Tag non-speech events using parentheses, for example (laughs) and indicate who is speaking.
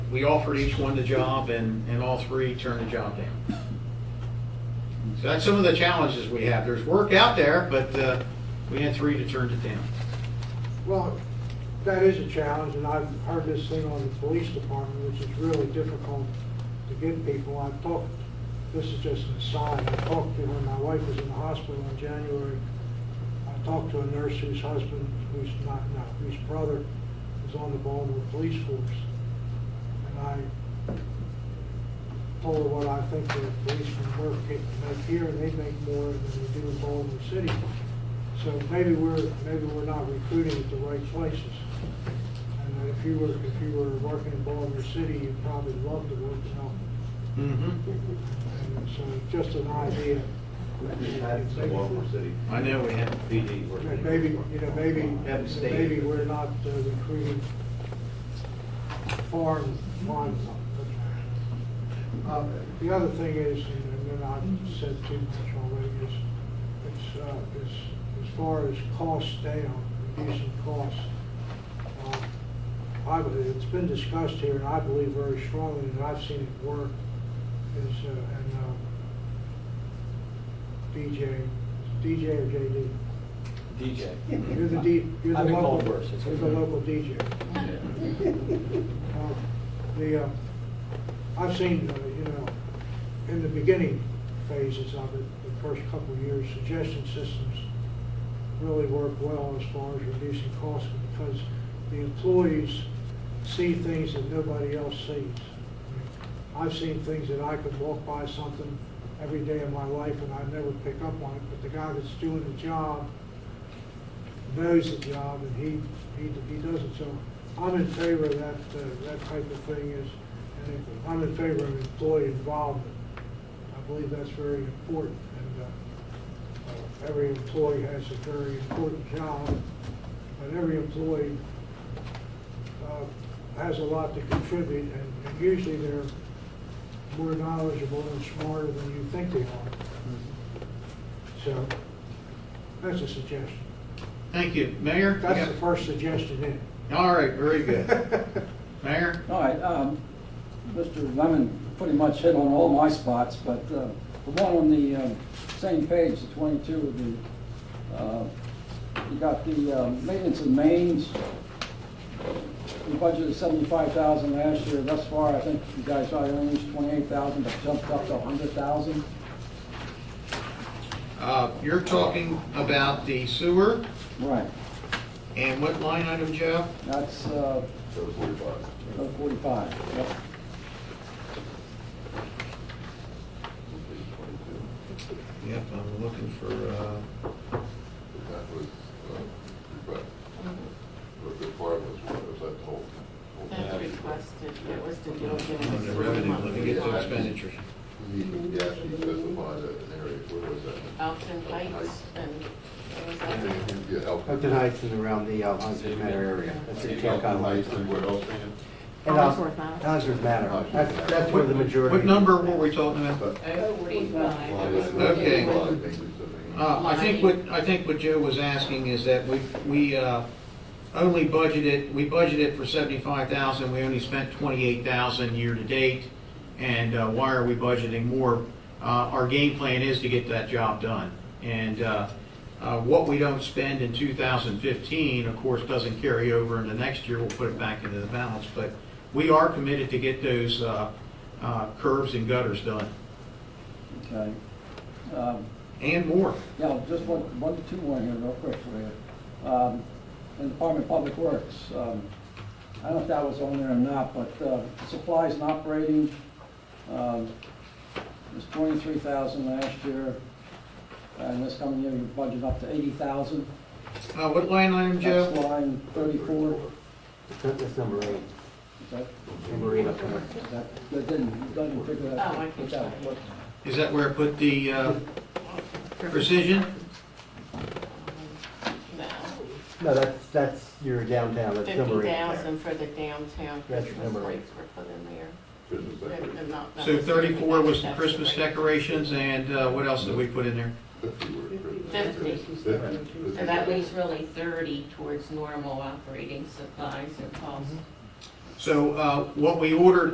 Speaker 1: we offered each one the job, and, and all three turned the job down. So that's some of the challenges we have. There's work out there, but uh, we had three that turned it down.
Speaker 2: Well, that is a challenge, and I've heard this thing on the police department, which is really difficult to get people. I've talked, this is just an aside, I talked to, when my wife was in the hospital in January, I talked to a nurse whose husband, who's not, not, whose brother was on the Baltimore Police Force. And I told her what I think the police can work, get- make here, and they make more than they do in Baltimore City. So maybe we're, maybe we're not recruiting at the right places. And if you were, if you were working in Baltimore City, you'd probably love to work in Elton.
Speaker 1: Mhm.
Speaker 2: Mm-hmm. And So just an idea.
Speaker 3: City.
Speaker 1: I know we had,
Speaker 3: PD working.
Speaker 2: Maybe, you know, maybe,
Speaker 1: Haven't stayed.
Speaker 2: maybe we're not uh, recruiting foreign lines. Uh, The other thing is, and then I've said too much already, is, it's, uh, is, as far as costs down, reducing costs, uh, I, believe- it's been discussed here, and I believe very strongly, and I've seen it work, is, uh, and, uh, DJ, DJ or JD?
Speaker 1: DJ.
Speaker 2: You're the D, you're the
Speaker 1: I've been
Speaker 2: local,
Speaker 1: called worse, it's
Speaker 2: you're the
Speaker 1: okay.
Speaker 2: local DJ. Uh, The, uh, I've seen, uh, you know, in the beginning phases of it, the first couple of years, suggestion systems really work well as far as reducing costs because the employees see things that nobody else sees. I've seen things that I could walk by something every day of my life and I never pick up on it, but the guy that's doing the job knows the job and he, he, he does it. So I'm in favor of that, uh, that type of thing is, and if- I'm in favor of employee involvement. I believe that's very important and, uh, uh, every employee has a very important job, but every employee, uh, has a lot to contribute and and usually they're more knowledgeable and smarter than you think they are. So that's a suggestion.
Speaker 1: Thank you. Mayor? you
Speaker 2: That's
Speaker 1: got-
Speaker 2: the first suggestion in.
Speaker 1: All right, very good.
Speaker 2: (laughs)
Speaker 1: Mayor?
Speaker 4: All right, um, Mr. Lemon pretty much hit on all my spots, but uh, the one on the um, same page, the 22, of the, uh, you got the um, maintenance of mains. We budgeted 75,000 last year. Thus far, I think you guys already unleashed 28,000, but jumped up to 100,000.
Speaker 1: Uh, You're talking about the sewer
Speaker 4: Right.
Speaker 1: and what line item, Joe?
Speaker 4: That's uh,
Speaker 3: So it's forty-five.
Speaker 4: 45. Yep.
Speaker 1: Yep, I'm looking for, uh,
Speaker 3: That was, uh, request. The department was, was that the whole? whole
Speaker 5: That's
Speaker 3: thing?
Speaker 5: requested, it was to do with
Speaker 1: on
Speaker 5: giving
Speaker 1: the
Speaker 5: us
Speaker 1: revenue, let me get to
Speaker 3: those
Speaker 5: money.
Speaker 3: back.
Speaker 1: expenditures.
Speaker 3: He, he actually specified that an area, where was that?
Speaker 5: Elton Heights and, it was Elton.
Speaker 3: Yeah, Elk.
Speaker 6: Up the Heights and around the uh, Hunsford Manor area. That's in Camp
Speaker 3: Elk
Speaker 6: Conway.
Speaker 3: Heights and where else, man?
Speaker 6: And, uh,
Speaker 5: Ellsworth Manor.
Speaker 6: Hunsford Manor. That's, that's where the majority.
Speaker 1: What number were we talking about?
Speaker 5: Oh,
Speaker 1: Okay. Uh, I think what, I think what Joe was asking is that we, we uh, only budgeted, we budgeted for 75,000, we only spent 28,000 year-to-date, and uh, why are we budgeting more? Uh, Our game plan is to get that job done, and uh, uh, what we don't spend in 2015, of course, doesn't carry over into next year, we'll put it back into the balance, but we are committed to get those uh, uh, curves and gutters done,
Speaker 4: Okay. Um,
Speaker 1: and more.
Speaker 4: Yeah, just one, one, two more here real quick for you. Um, in Department of Public Works, um, I don't know if that was on there or not, but, uh, supplies and operating, um, was twenty-three thousand last year. And this coming year, you budget up to eighty thousand.
Speaker 1: Uh, What line item, Joe?
Speaker 4: That's line thirty-four.
Speaker 6: That- That's number eight.
Speaker 4: Is that,
Speaker 6: Number eight up there.
Speaker 4: that, that didn't, doesn't figure that out.
Speaker 5: Oh, I can check.
Speaker 1: Is that where I put the uh, precision?
Speaker 5: No,
Speaker 6: No, that's, that's your downtown. That's
Speaker 5: fifty
Speaker 6: number eight there.
Speaker 5: thousand for the downtown
Speaker 6: That's
Speaker 5: Christmas
Speaker 6: number eight.
Speaker 5: lights were put in there.
Speaker 3: Business
Speaker 5: They're- they're
Speaker 3: decoration,
Speaker 5: not-
Speaker 1: So
Speaker 5: that's-
Speaker 1: 34 was the Christmas
Speaker 5: that's-
Speaker 1: decorations, and uh, what else did we put in there?
Speaker 3: fifty were Christmas.
Speaker 5: Fifty.
Speaker 3: Fifty.
Speaker 6: Mm-hmm.
Speaker 5: So that leaves really thirty towards normal operating supplies and costs.
Speaker 1: So uh, what we ordered